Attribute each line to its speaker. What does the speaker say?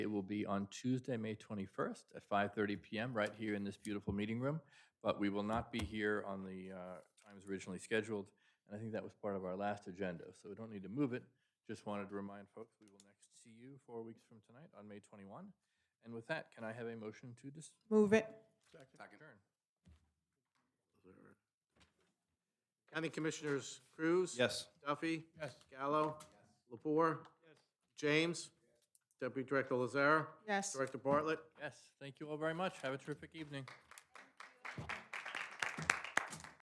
Speaker 1: will be on Tuesday, May 21st at 5:30 PM, right here in this beautiful meeting room. But we will not be here on the uh, times originally scheduled, and I think that was part of our last agenda. So we don't need to move it. Just wanted to remind folks, we will next see you four weeks from tonight on May 21. And with that, can I have a motion to dis-
Speaker 2: Move it.
Speaker 1: adjourn?
Speaker 3: County Commissioners Cruz.
Speaker 4: Yes.
Speaker 3: Duffy. Yes. Gallo. Lapore. James. Deputy Director Lazara.
Speaker 2: Yes.
Speaker 3: Director Bartlett.
Speaker 1: Yes, thank you all very much. Have a terrific evening.